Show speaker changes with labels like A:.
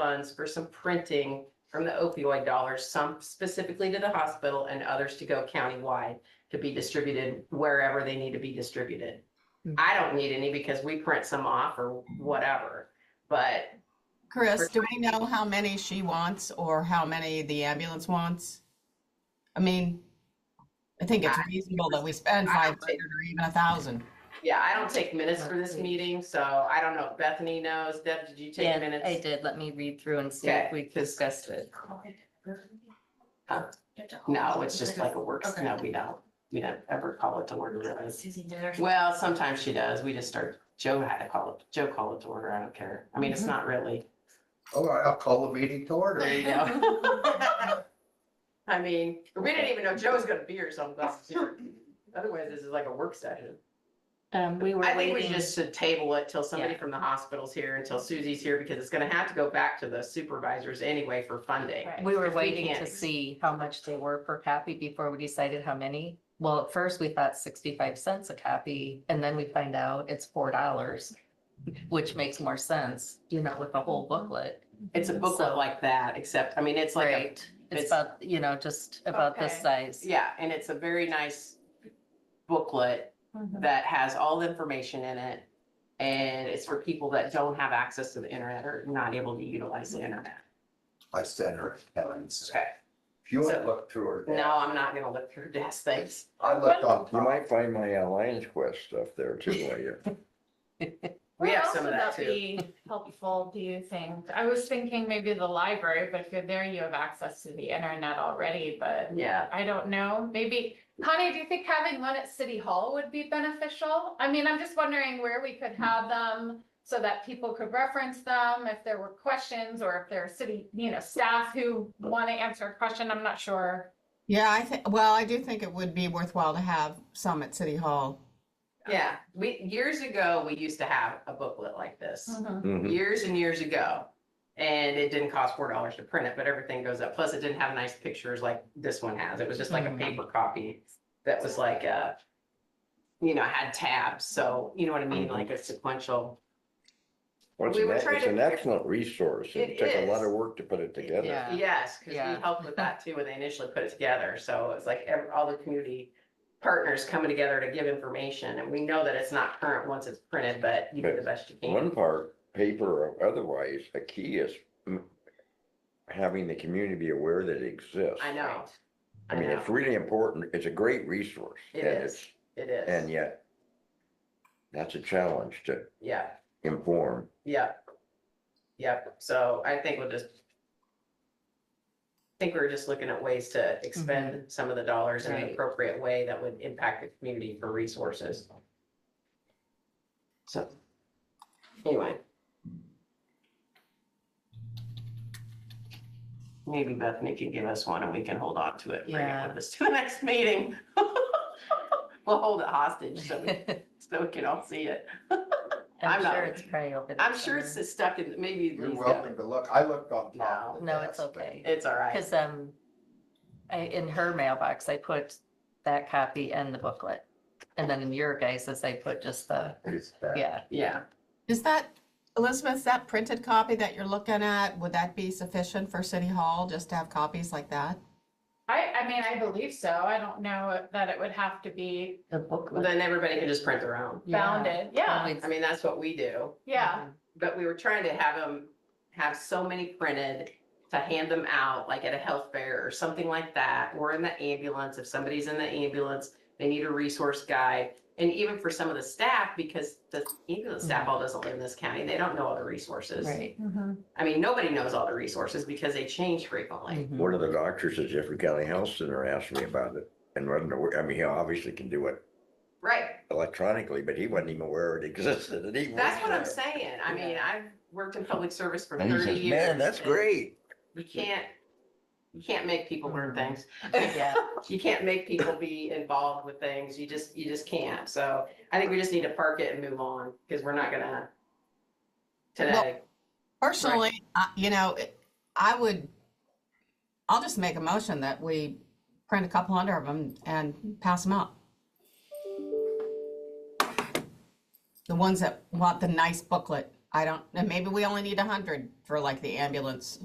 A: funds for some printing from the opioid dollars, some specifically to the hospital and others to go countywide to be distributed wherever they need to be distributed.
B: Hmm.
A: I don't need any because we print some off or whatever, but
C: Chris, do we know how many she wants or how many the ambulance wants? I mean, I think it's reasonable that we spend
A: I
C: five
A: don't
C: hundred or even a thousand.
A: yeah, I don't take minutes for this meeting, so I don't know. if Bethany knows. Deb, did you take
B: Yeah,
A: minutes?
B: I did. Let me read through and see if
A: Okay.
B: we discussed it.
A: No, it's just like a work,
B: Okay.
A: no, we don't, we don't ever call it to order. really.
B: Susie did her.
A: Well, sometimes she does. We just start, Joe had to call it, Joe called it to order. I don't care. I mean, it's
B: Mhm.
A: not really.
D: All right, I'll call the meeting to order.
A: There you go. I mean, we didn't even know Joe was gonna be here, so I'm glad he's here. Otherwise, this is like a work session.
B: Um, we were
A: I think we
B: waiting.
A: just should table it till somebody
B: Yeah.
A: from the hospital's here, until Susie's here, because it's gonna have to go back to the supervisors anyway for funding.
B: We were
A: If we
B: waiting to
A: can't-
B: see how much they were per copy before we decided how many. Well, at first we thought sixty-five cents a copy and then we find out it's four dollars, which makes more sense, you know, with the whole booklet.
A: It's a booklet
B: So-
A: like that, except, I mean, it's like, a-
B: Right.
A: it's-
B: It's about, you know, just about this
E: Okay.
B: size.
A: yeah, and it's a very nice booklet
E: Mhm.
A: that has all the information in it. And it's for people that don't have access to the internet or not able to utilize the internet.
D: I sent her Helen's.
A: Okay.
D: If you want
A: So-
D: to look through her.
A: No, I'm not gonna look through desk things.
D: I looked on.
F: You might find my uh, Lions Quest stuff there too, later.
A: We
E: Where
A: have
E: else
A: some of
E: would
A: that too.
E: be Helpful, do you think? I was thinking maybe the library, but if you're there, you have access to the internet already, but
A: Yeah,
E: I don't know, maybe. Connie, do you think having one at City Hall would be beneficial? I mean, I'm just wondering where we could have them so that people could reference them if there were questions or if there are city, you know, staff who want to answer a question, I'm not sure.
C: Yeah, I think, well, I do think it would be worthwhile to have some at City Hall.
A: yeah. We, years ago, we used to have a booklet like this.
E: Mm-hmm.
F: Mhm.
A: years and years ago. And it didn't cost four dollars to print it, but everything goes up. Plus, it didn't have nice pictures like this one has. It was just like a
B: Mhm.
A: paper copy that was like a, you know, had tabs. So you know what I mean?
F: Mhm.
A: Like a sequential.
F: Well, It's
A: We
F: an
A: were
F: ex-
A: trying
F: it's
A: to-
F: an excellent resource.
A: It
F: It took a lot
A: is.
F: of work to put it together.
B: Yeah.
A: Yes, because
B: Yeah.
A: we helped with that too when they initially put it together. So it's like ev- all the community partners coming together to give information. And we know that it's not current once it's printed, but you do the best you can.
F: One part, paper or otherwise, a key is mm, having the community be aware that it exists.
A: I know.
F: I mean, it's
A: know.
F: really important. It's a great resource.
A: It
F: and
A: is.
F: it's-
A: It is.
F: And yet, that's a challenge to
A: Yeah.
F: inform.
A: Yep. Yep, so I think we'll just. I Think we're just looking at ways to expend some of the dollars in an
B: Mm-hmm. Right.
A: appropriate way that would impact the community for resources. So. Anyway. Maybe Bethany can give us one and we can hold on to it, and bring it
B: Yeah.
A: with us to the next meeting. We'll hold it hostage so we, so we can all see it. I'm
B: I'm
A: not
B: sure
A: with
B: it's probably over. there
A: I'm sure it's
B: somewhere.
A: just stuck in, maybe
D: You're
A: Lee's
D: welcome
A: got-
D: to look. I looked on top. of the
B: No, it's
D: desk, but-
B: okay.
A: it's all right.
B: Because um, I, in her mailbox, I put that copy and the booklet. And then in your guys's, I put just the,
D: It's bad.
B: yeah,
A: Yeah,
C: Is that, Elizabeth, is that printed copy that you're looking at, would that be sufficient for City Hall, just to have copies like that?
E: I, I mean, I believe so. I don't know that it would have to be
B: the booklet.
A: then everybody can just print their own.
E: bounded, yeah,
A: I mean, that's what we do,
E: yeah.
A: but we were trying to have them have so many printed to hand them out, like at a health fair or something like that, or in the ambulance, if somebody's in the ambulance, they need a resource guide. And even for some of the staff, because the ambulance staff all doesn't live in this county, they don't know all the resources.
B: Right.
A: I mean, nobody knows all the resources because they change frequently.
B: Mhm.
F: One of the doctors at Jeffrey County Health Center asked me about it and wasn't aware, I mean, he obviously can do it
A: Right,
F: electronically, but he wasn't even aware it existed. and he
A: That's
F: works
A: what I'm
F: there.
A: saying. I mean,
B: Yeah.
A: I've worked in public service for
F: And he
A: thirty
F: says,
A: years.
F: man, that's
A: and
F: great.
A: You can't, you can't make people learn things.
B: Yeah.
A: You can't make people be involved with things. You just, you just can't. So I think we just need to park it and move on because we're not gonna today.
C: Personally, I- you know, it- I would, I'll just make a motion that we print a couple hundred of them and pass them out. The ones that want the nice booklet. I don't, and maybe we only need a hundred for like the ambulance